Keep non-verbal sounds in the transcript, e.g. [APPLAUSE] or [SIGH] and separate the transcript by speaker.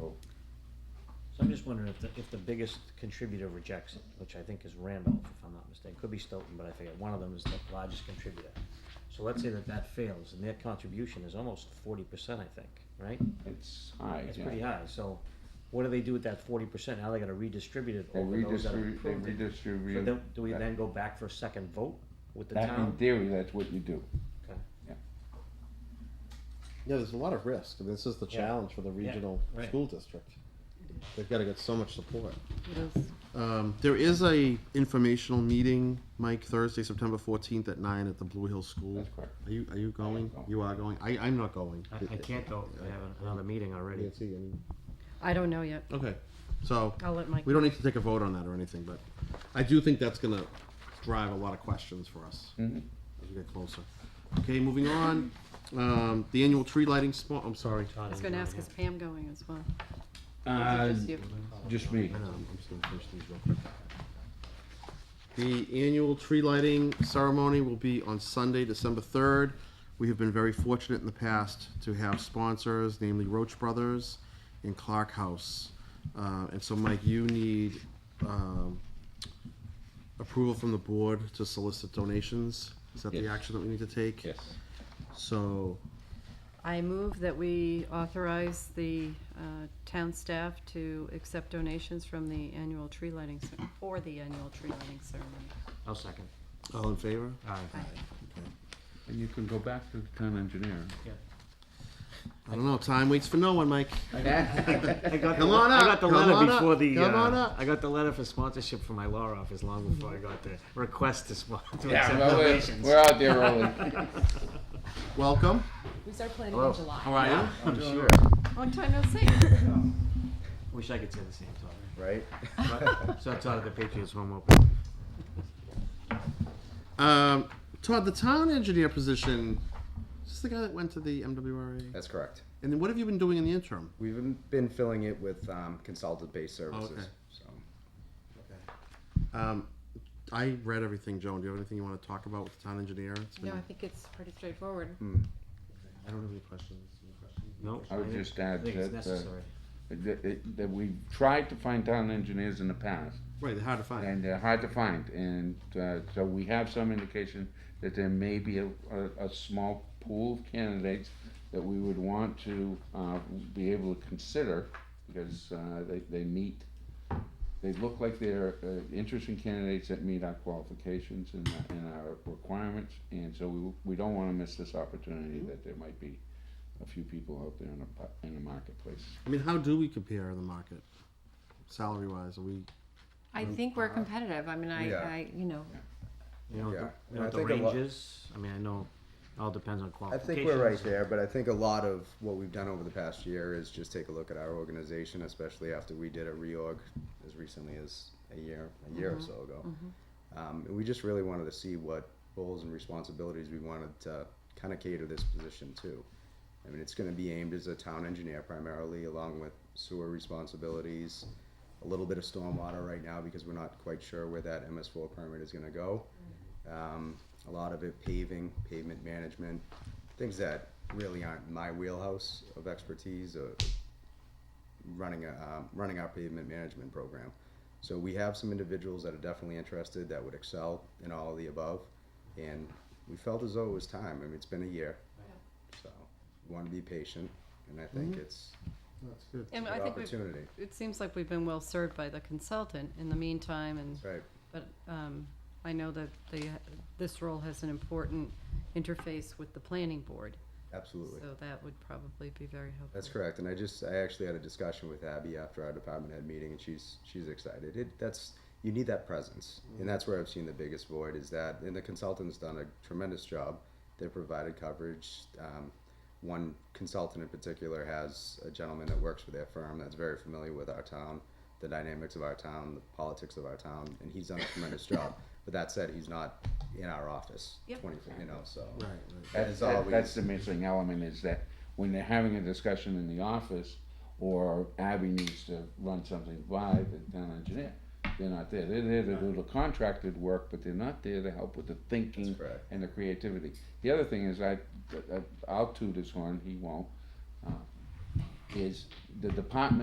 Speaker 1: Oh,
Speaker 2: just wondering if the, if the biggest contributor rejects it, which I think is Randolph, if I'm not mistaken, could be Stoughton, but I forget, one of them is the largest contributor. So let's say that that fails, and their contribution is almost forty percent, I think, right?
Speaker 1: It's high,
Speaker 2: It's pretty
Speaker 1: yeah.
Speaker 2: high, so what do they do with that forty percent? Now they gotta redistribute it
Speaker 1: They
Speaker 2: over those that
Speaker 1: redistribute, they
Speaker 2: approved it. So
Speaker 1: redistribute.
Speaker 2: then, do we
Speaker 1: that-
Speaker 2: then go back for a second vote with the
Speaker 1: That, in
Speaker 2: town?
Speaker 1: theory, that's what you do.
Speaker 2: Okay.
Speaker 3: Yeah, there's a lot of risk. I mean, this is the
Speaker 2: Yeah.
Speaker 3: challenge for the
Speaker 2: Yeah,
Speaker 3: regional
Speaker 2: right.
Speaker 3: school district. They've got to get so much support.
Speaker 4: It is.
Speaker 3: Um, there is a informational meeting, Mike, Thursday, September fourteenth at nine at the Blue Hill School.
Speaker 1: That's correct.
Speaker 3: Are you, are you going?
Speaker 1: going.
Speaker 3: You are going? I, I'm not going.
Speaker 2: I, I can't go, I have another meeting already.
Speaker 3: Nancy, I mean-
Speaker 4: I don't know yet.
Speaker 3: Okay, so,
Speaker 4: I'll let Mike.
Speaker 3: we don't need to take a vote on that or anything, but I do think that's gonna drive a lot of questions for us.
Speaker 1: Mhm.
Speaker 3: As we get closer. Okay, moving on, um, the annual tree lighting spot, I'm sorry.
Speaker 2: Todd
Speaker 4: I was
Speaker 2: and
Speaker 4: gonna
Speaker 2: John
Speaker 4: ask,
Speaker 2: here.
Speaker 4: is Pam going as well? Or
Speaker 1: Uh,
Speaker 4: is it just you?
Speaker 1: just me.
Speaker 3: I know, I'm just gonna finish these real quick. The annual tree lighting ceremony will be on Sunday, December third. We have been very fortunate in the past to have sponsors, namely Roach Brothers and Clark House. Uh, and so Mike, you need, um, approval from the board to solicit donations? Is that the
Speaker 1: Yes.
Speaker 3: action that we need to take?
Speaker 1: Yes.
Speaker 3: So,
Speaker 4: I move that we authorize the uh, town staff to accept donations from the annual tree lighting, cer- for the annual tree lighting ceremony.
Speaker 2: I'll second.
Speaker 3: all in favor?
Speaker 2: Aye.
Speaker 1: And you can go back to the town
Speaker 2: [LAUGHS]
Speaker 1: engineer.
Speaker 3: I don't know, time waits for no one, Mike.
Speaker 2: I got
Speaker 3: Come
Speaker 2: the,
Speaker 3: on up,
Speaker 2: I got the
Speaker 3: come
Speaker 2: letter
Speaker 3: on up,
Speaker 2: before the.
Speaker 3: come
Speaker 2: uh,
Speaker 3: on up.
Speaker 2: I got the letter for sponsorship from my law office long before I got the request to sponsor.
Speaker 1: Yeah, well, we're, we're out
Speaker 2: [LAUGHS]
Speaker 1: there early.
Speaker 3: Welcome.
Speaker 5: We start planning
Speaker 2: Hello.
Speaker 5: in July.
Speaker 3: How are you?
Speaker 2: I'm sure.
Speaker 4: Long
Speaker 5: [LAUGHS]
Speaker 4: time no see.
Speaker 2: Wish I could say the same, Todd.
Speaker 6: right?
Speaker 2: But- So I taught the Patriots home open.
Speaker 3: Um, Todd, the town engineer position, is this the guy that went to the MWRA?
Speaker 6: That's correct.
Speaker 3: And then what have you been doing in the interim?
Speaker 6: We've been- been filling it with um, consultant-based services,
Speaker 3: Okay.
Speaker 6: so.
Speaker 3: Um, I read everything, Joan. Do you have anything you want to talk about with the town engineer? It's
Speaker 5: No,
Speaker 3: been-
Speaker 5: I think it's pretty straightforward.
Speaker 3: I don't have any questions. Any questions?
Speaker 2: No.
Speaker 1: I would
Speaker 2: think-
Speaker 1: just add
Speaker 2: I think it's
Speaker 1: that, uh,
Speaker 2: necessary.
Speaker 1: That, that- that we've tried to find town engineers in the past,
Speaker 3: Right, they're hard to find.
Speaker 1: and they're hard to find, and, uh, so we have some indication that there may be a, a, a small pool of candidates that we would want to, uh, be able to consider, because, uh, they, they meet, they look like they're, uh, interesting candidates that meet our qualifications and, our- and our requirements, and so we, we don't wanna miss this opportunity that there might be a few people out there in the, pu- in the marketplace.
Speaker 3: I mean, how do we compare in the market? Salary wise, are we,
Speaker 5: I think we're competitive. I mean, I,
Speaker 6: Yeah.
Speaker 5: I, you know,
Speaker 2: You know, the-
Speaker 6: yeah.
Speaker 2: you
Speaker 6: And
Speaker 2: know
Speaker 6: I
Speaker 2: what the
Speaker 6: think a lot-
Speaker 2: ranges, I mean, I know, it all depends on
Speaker 6: I
Speaker 2: qualifications.
Speaker 6: think we're right there, but I think a lot of what we've done over the past year is just take a look at our organization, especially after we did a reorg as recently as a year, a year or so ago. Um, and we just really wanted to see what roles and responsibilities we wanted to kind of cater this position to. I mean, it's going to be aimed as a town engineer primarily, along with sewer responsibilities, a little bit of stormwater right now because we're not quite sure where that MS4 permit is going to go. Um, a lot of it paving, pavement management, things that really aren't my wheelhouse of expertise or running a, um, running our pavement management program. So we have some individuals that are definitely interested that would excel in all of the above, and we felt as though it was time. I mean, it's been a year, so we want to be patient, and I think it's
Speaker 3: that's good.
Speaker 4: And
Speaker 6: an
Speaker 4: I think we've,
Speaker 6: opportunity.
Speaker 4: it seems like we've been well served by the consultant in the meantime and
Speaker 6: Right.
Speaker 4: But um, I know that they, this role has an important interface with the planning board,
Speaker 6: Absolutely.
Speaker 4: so that would probably be very helpful.
Speaker 6: That's correct, and I just I actually had a discussion with Abby after our department head meeting, and she's she's excited. It that's you need that presence, and that's where I've seen the biggest void is that. And the consultant's done a tremendous job. They provided coverage. Um, one consultant in particular has a gentleman that works for their firm that's very familiar with our town, the dynamics of our town, the politics of our town, and he's done a tremendous job. But that said, he's not in our office
Speaker 4: Yep.
Speaker 6: twenty four, you know. So
Speaker 3: Right, right.
Speaker 6: that
Speaker 1: That's,
Speaker 6: is
Speaker 1: that-
Speaker 6: always
Speaker 1: that's the missing element is that when they're having a discussion in the office or Abby needs to run something by the town engineer, they're not there. They're there to do the contracted work, but they're not there to help with the thinking
Speaker 6: That's correct.
Speaker 1: and the creativity. The other thing is I, I- I'll toot his horn, he won't, uh, is the department